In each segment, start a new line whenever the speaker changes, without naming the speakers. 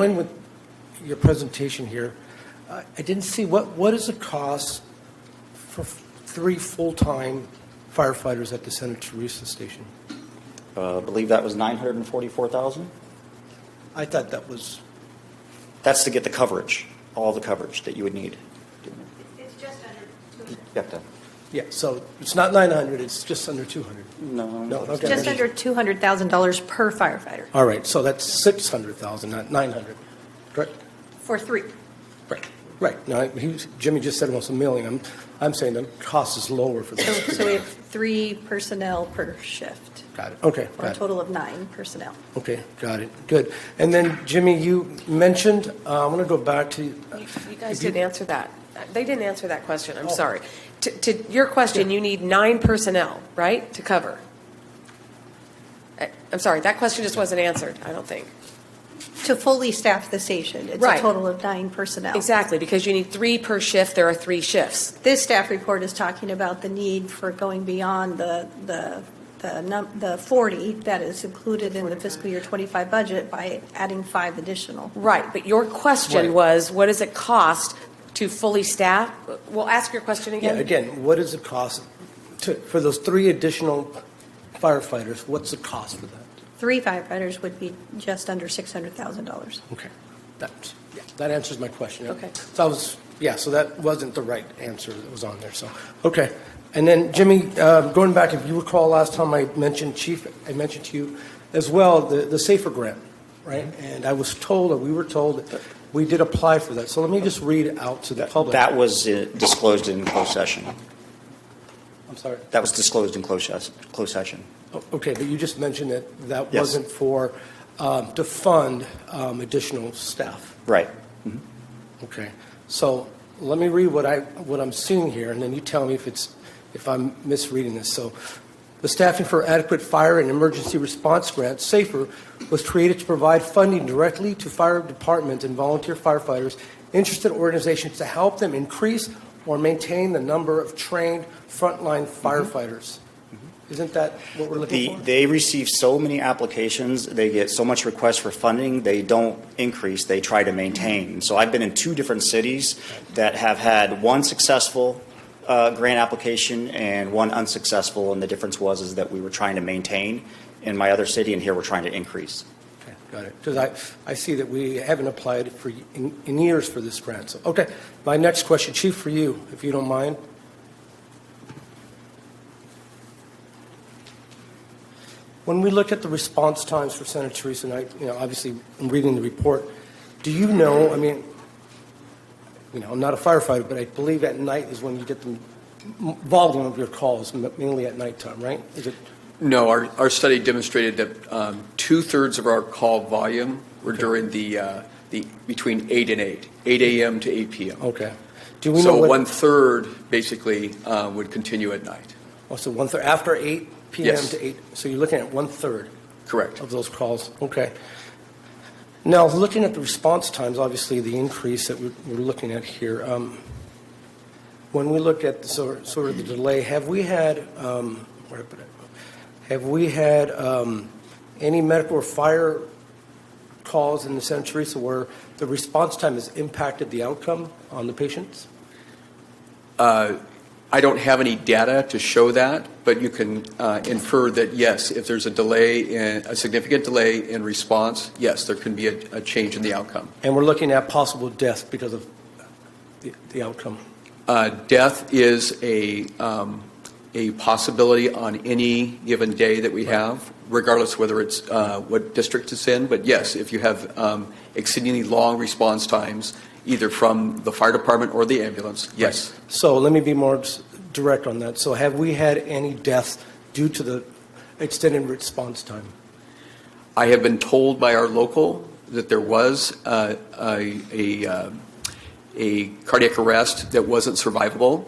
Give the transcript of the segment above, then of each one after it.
Going with your presentation here, I I didn't see, what, what is the cost for f- three full-time firefighters at the Santa Teresa Station?
Uh, I believe that was 944,000.
I thought that was,
That's to get the coverage, all the coverage that you would need.
It's just under 200.
You have to-
yeah, so it's not 900, it's just under 200.
No.
No, okay.
Just under $200,000 per firefighter
All right, so that's 600,000, not 900, correct?
for three.
Right. Right, no, he was- Jimmy just said almost a million, I'm, I'm saying the cost is lower for
So,
this.
so we have three personnel per shift,
Got it, okay,
or a
got it.
total of nine personnel.
Okay, got it, good. And then Jimmy, you mentioned, uh, I want to go back to.
You you guys
If you-
didn't answer that. They didn't answer that question, I'm
Oh.
sorry. To- To your question, you need nine personnel, right, to cover? I- I'm sorry, that question just wasn't answered, I don't think.
To fully staff the station, it's a
Right.
total of nine personnel.
Exactly, because you need three per shift, there are three shifts.
This staff report is talking about the need for going beyond the, the, the num- the 40 that is included in the fiscal year 25 budget by adding five additional.
Right, but your
Right.
question was, what does it cost to fully staff? Well, ask your question
Yeah,
again.
again, what is the cost to, for those three additional firefighters, what's the cost for that?
Three firefighters would be just under $600,000.
Okay. That, yeah, that answers my question.
Okay.
So I was, yeah, so that wasn't the right answer that was on there, so, okay. And then Jimmy, uh, going back, if you recall last time I mentioned Chief, I mentioned to you as well, the, the SAFER grant, right?
Mm-hmm.
And I was told, or we were told, that we did apply for that. So let me just read it out to the public.
That was uh, disclosed in closed session.
I'm sorry.
That was disclosed in closed ses- closed session.
O- Okay, but you just mentioned that that
Yes.
wasn't for, um, to fund um, additional staff.
Right.
Okay, so let me read what I, what I'm seeing here, and then you tell me if it's, if I'm misreading this. So, the Staffing for Adequate Fire and Emergency Response Grant, SAFER, was created to provide funding directly to fire departments and volunteer firefighters, interested organizations to help them increase or maintain the number of trained frontline firefighters. Isn't that what we're
Mm-hmm. The,
looking for?
they receive so many applications, they get so much requests for funding, they don't increase, they try to maintain. So I've been in two different cities that have had one successful uh, grant application and one unsuccessful, and the difference was is that we were trying to maintain in my other city, and here we're trying to increase.
Okay, Got it. Because I, I see that we haven't applied for, in, in years for this grant. So, okay, my next question, Chief, for you, if you don't mind. When we look at the response times for Senator Teresa, and I, you know, obviously, I'm reading the report, do you know, I mean, you know, I'm not a firefighter, but I believe at night is when you get the m- volume of your calls, m- mainly at nighttime, right? Is it,
No, our, our study demonstrated that um, two-thirds of our call volume were during the, uh, the, between eight and eight, eight AM to eight PM.
okay. Do Oh, we know
So
what-
one-third basically uh, would continue at night.
Oh, so one third, after eight PM
Yes.
to eight, so you're looking at one-third
Correct.
of those calls, okay. Now, looking at the response times, obviously, the increase that we're we're looking at here, um, when we look at the sor- sort of the delay, have we had, um, where did I put it? Have we had um, any medical or fire calls in the Santa Teresa where the response time has impacted the outcome on the patients?
Uh, I don't have any data to show that, but you can uh, infer that, yes, if there's a delay, in a significant delay in response, yes, there can be a, a change in the outcome.
And we're looking at possible death because of the- the outcome.
Uh, Death is a, um, a possibility on any given day that we have, regardless whether it's, uh, what district it's in. But yes, if you have um, exceedingly long response times, either from the fire department or the ambulance, yes.
So let me be more s- direct on that. So have we had any deaths due to the extended response time?
I have been told by our local that there was uh, a, a, uh, a cardiac arrest that wasn't survivable.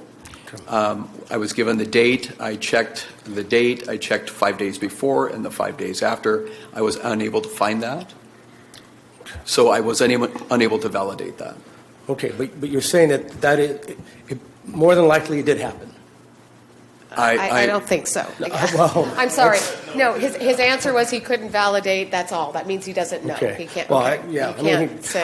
Um, I was given the date, I checked the date, I checked five days before and the five days after. I was unable to find that. So I was unable, unable to validate that.
Okay, but, but you're saying that that is, it- it- more than likely it did happen.
I-
I, I
I-
don't think so.
well,
I'm sorry. No, his, his answer was he couldn't validate, that's all. That means he doesn't know.
Okay.
He can't,
Well, I-
okay.
yeah,
You
I mean,
can't say.